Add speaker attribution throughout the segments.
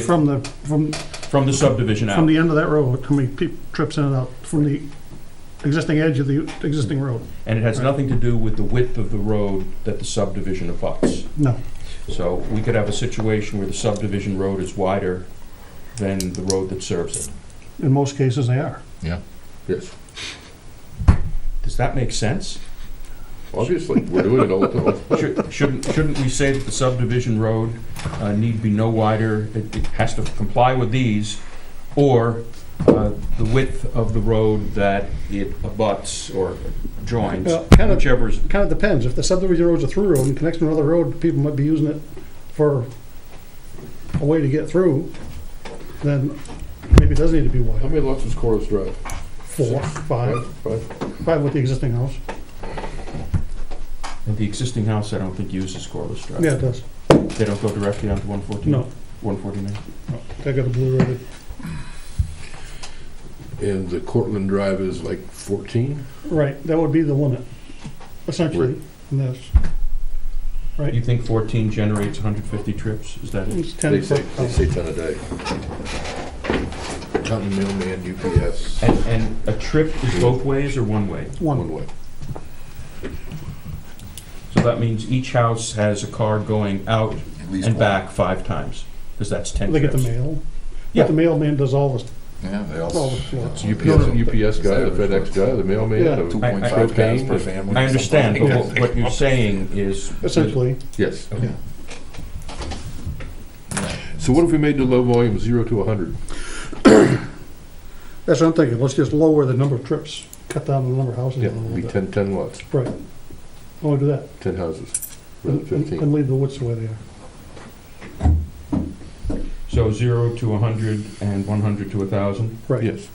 Speaker 1: From the, from,
Speaker 2: From the subdivision
Speaker 1: from
Speaker 2: out.
Speaker 1: the end of that road, how many peop trips in and out from the existing edge of the existing road?
Speaker 2: And it has nothing to do with the width of the road that the subdivision abuts.
Speaker 3: Mm-hmm.
Speaker 1: No.
Speaker 2: So we could have a situation where the subdivision road is wider than the road that serves it.
Speaker 1: In most cases, they are.
Speaker 3: Yes,
Speaker 2: Does that make sense?
Speaker 3: obviously, we're doing it all the time.
Speaker 2: Should- Shouldn't, shouldn't we say that the subdivision road uh, need be no wider, it it has to comply with these, or uh, the width of the road that it abuts or joins,
Speaker 1: Well, kind of-
Speaker 2: whichever is,
Speaker 1: Kind of depends. If the subdivision road's a through road and connects to another road, people might be using it for a way to get through, then maybe it does need to be
Speaker 3: How
Speaker 1: wider.
Speaker 3: many lots is Corliss Drive?
Speaker 1: Four, five,
Speaker 3: Five?
Speaker 1: five with the existing house.
Speaker 2: and the existing house, I don't think uses Corliss Drive.
Speaker 1: Yeah, it does.
Speaker 2: They don't go directly onto 114?
Speaker 1: No,
Speaker 2: 149?
Speaker 1: no, they got a blue road.
Speaker 3: And the Cortland Drive is like fourteen?
Speaker 1: Right, that would be the limit, essentially, in this.
Speaker 2: You
Speaker 1: Right?
Speaker 2: think 14 generates 150 trips? Is that it?
Speaker 1: It's
Speaker 3: They
Speaker 1: ten
Speaker 3: say,
Speaker 1: foot.
Speaker 3: they say ten a day. Counting mailman, UPS,
Speaker 2: And, and a trip is both ways or one way?
Speaker 1: One,
Speaker 3: one way.
Speaker 2: So that means each house has a car going out
Speaker 4: At least
Speaker 2: and
Speaker 4: one.
Speaker 2: back five times, because that's 10
Speaker 1: they get the
Speaker 2: trips.
Speaker 1: mail.
Speaker 2: Yeah.
Speaker 1: But the mailman does all this,
Speaker 4: Yeah, they
Speaker 1: Well,
Speaker 4: also.
Speaker 1: it's
Speaker 3: UPS, UPS guy, the FedEx guy, the mailman,
Speaker 1: Yeah.
Speaker 4: Two
Speaker 3: the,
Speaker 4: point
Speaker 2: I-
Speaker 4: five cars per
Speaker 3: propane.
Speaker 4: family.
Speaker 2: I understand, but
Speaker 4: something
Speaker 2: what- what you're saying is,
Speaker 1: essentially.
Speaker 3: yes.
Speaker 4: Yeah.
Speaker 3: So what if we made the low volume zero to a hundred?
Speaker 1: That's what I'm thinking, let's just lower the number of trips, cut down the number of houses a
Speaker 3: Yeah,
Speaker 1: little
Speaker 3: be
Speaker 1: bit.
Speaker 3: ten, ten lots,
Speaker 1: Right. Only do that,
Speaker 3: ten houses, rather
Speaker 1: and-
Speaker 3: than
Speaker 1: and
Speaker 3: fifteen.
Speaker 1: and leave the woods the way they are.
Speaker 2: so 0 to 100 and 100 to 1,000.
Speaker 1: Right,
Speaker 3: Yes,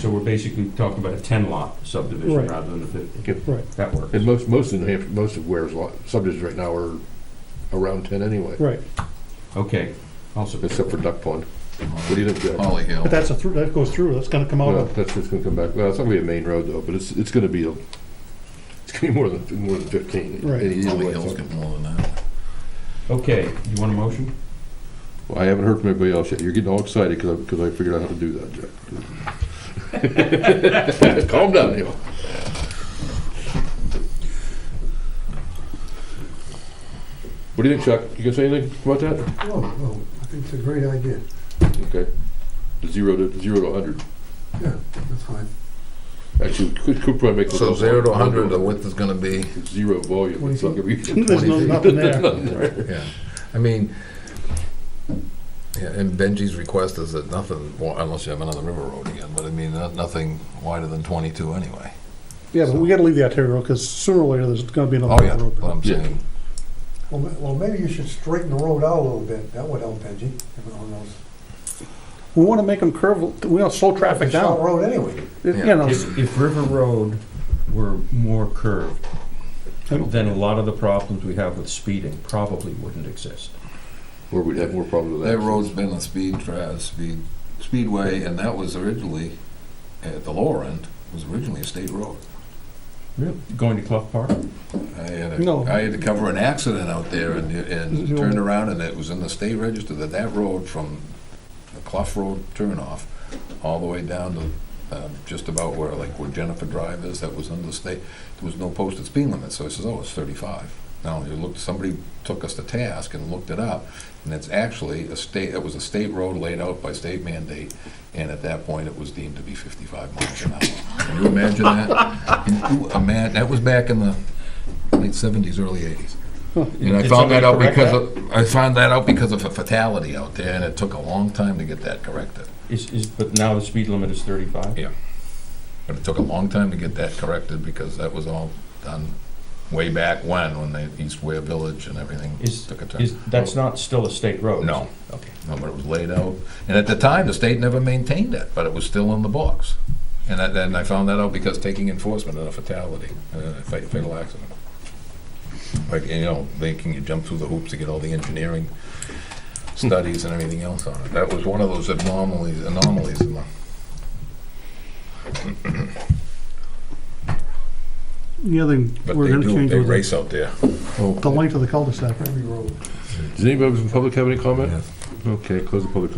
Speaker 2: So we're basically talking about a 10-lot subdivision
Speaker 1: Right.
Speaker 2: rather than a 50.
Speaker 3: Yep.
Speaker 1: Right.
Speaker 2: That works.
Speaker 3: and most, most of New Hampshire, most of Ware's lot, subdivisions right now are around ten anyway,
Speaker 1: right,
Speaker 2: Okay. Also,
Speaker 3: except for Duck Pond. What do you think, Jack?
Speaker 4: Holly Hill.
Speaker 1: but that's a through, that goes through, that's gonna come out
Speaker 3: No,
Speaker 1: of,
Speaker 3: that's just gonna come back, well, it's not gonna be a main road though, but it's, it's gonna be, a it's gonna be more than, more than fifteen.
Speaker 1: Right.
Speaker 3: Any- either
Speaker 4: Holly
Speaker 3: way,
Speaker 4: Hill's
Speaker 3: so-
Speaker 4: got more than that.
Speaker 2: okay, you want a motion?
Speaker 3: Well, I haven't heard from anybody else yet, you're getting all excited because I, because I figured out how to do that, Jack. Calm down, Neil. What do you think, Chuck? You gonna say anything about that?
Speaker 5: Oh, well, I think it's a great idea.
Speaker 3: Okay. Zero to, zero to a hundred.
Speaker 5: Yeah, that's fine.
Speaker 3: Actually, we could, could probably make. the
Speaker 4: So
Speaker 3: low
Speaker 4: zero to
Speaker 3: volume
Speaker 4: hundred, the width is gonna be,
Speaker 3: Zero volume, it's not gonna be.
Speaker 1: there's no, nothing there.
Speaker 4: yeah. I mean, yeah, and Benji's request is that nothing, well, unless you have another river road again, but I mean, no- nothing wider than twenty-two anyway.
Speaker 1: Yeah, but we gotta leave the arterial, because sooner or later, there's gonna be
Speaker 4: Oh,
Speaker 1: another
Speaker 4: yeah,
Speaker 1: road.
Speaker 4: but I'm
Speaker 3: Yeah.
Speaker 4: saying,
Speaker 5: Well, ma- well, maybe you should straighten the road out a little bit. That would help, Benji, if no one else.
Speaker 1: We wanna make them curve, we wanna slow traffic
Speaker 5: It's a short
Speaker 1: down.
Speaker 5: road anyway.
Speaker 1: It-
Speaker 4: Yeah.
Speaker 1: You know,
Speaker 2: If, if River Road were more curved, then a lot of the problems we have with speeding probably wouldn't exist.
Speaker 3: Or we'd have more problems with that.
Speaker 4: that road's been a speed tra speed, speedway, and that was originally, at the lower end, was originally a state road.
Speaker 2: Really? Going to Clough Park?
Speaker 4: I had
Speaker 1: No.
Speaker 4: to, I had to cover an accident out there and, and
Speaker 1: Zero.
Speaker 4: turned around and it was in the state register that that road from the Clough Road turnoff all the way down to uh, just about where, like where Jennifer Drive is, that was under state, there was no posted speed limit, so I says, oh, it's thirty-five. Now, you looked, somebody took us to task and looked it up, and it's actually a state, it was a state road laid out by state mandate, and at that point, it was deemed to be fifty-five miles an hour. Can you imagine that? Can you imagine, that was back in the late seventies, early eighties. And I
Speaker 2: Did
Speaker 4: found that out
Speaker 2: somebody correct
Speaker 4: because of, I found that out because of a fatality out there, and it took a long time to get that corrected.
Speaker 2: Is, is, but now the speed limit is thirty-five?
Speaker 4: Yeah. But it took a long time to get that corrected because that was all done way back when, when the East Ware Village and everything
Speaker 2: Is-
Speaker 4: took a turn.
Speaker 2: Is, that's not still a state road?
Speaker 4: No.
Speaker 2: Okay.
Speaker 4: No, but it was laid out, and at the time, the state never maintained it, but it was still in the books. And I, and I found that out because taking enforcement in a fatality, uh, a fa- fatal accident. Like, you know, making you jump through the hoops to get all the engineering studies and everything else on it. That was one of those anomalies, anomalies in the.
Speaker 1: the other thing,
Speaker 4: But
Speaker 1: we're
Speaker 4: they
Speaker 1: gonna
Speaker 4: do,
Speaker 1: change
Speaker 4: they
Speaker 1: was
Speaker 4: race out there.
Speaker 1: the length of the cul-de-sac.
Speaker 5: Every road.
Speaker 3: Does anybody from the public have any comment?
Speaker 4: Yes.
Speaker 3: Okay, close the public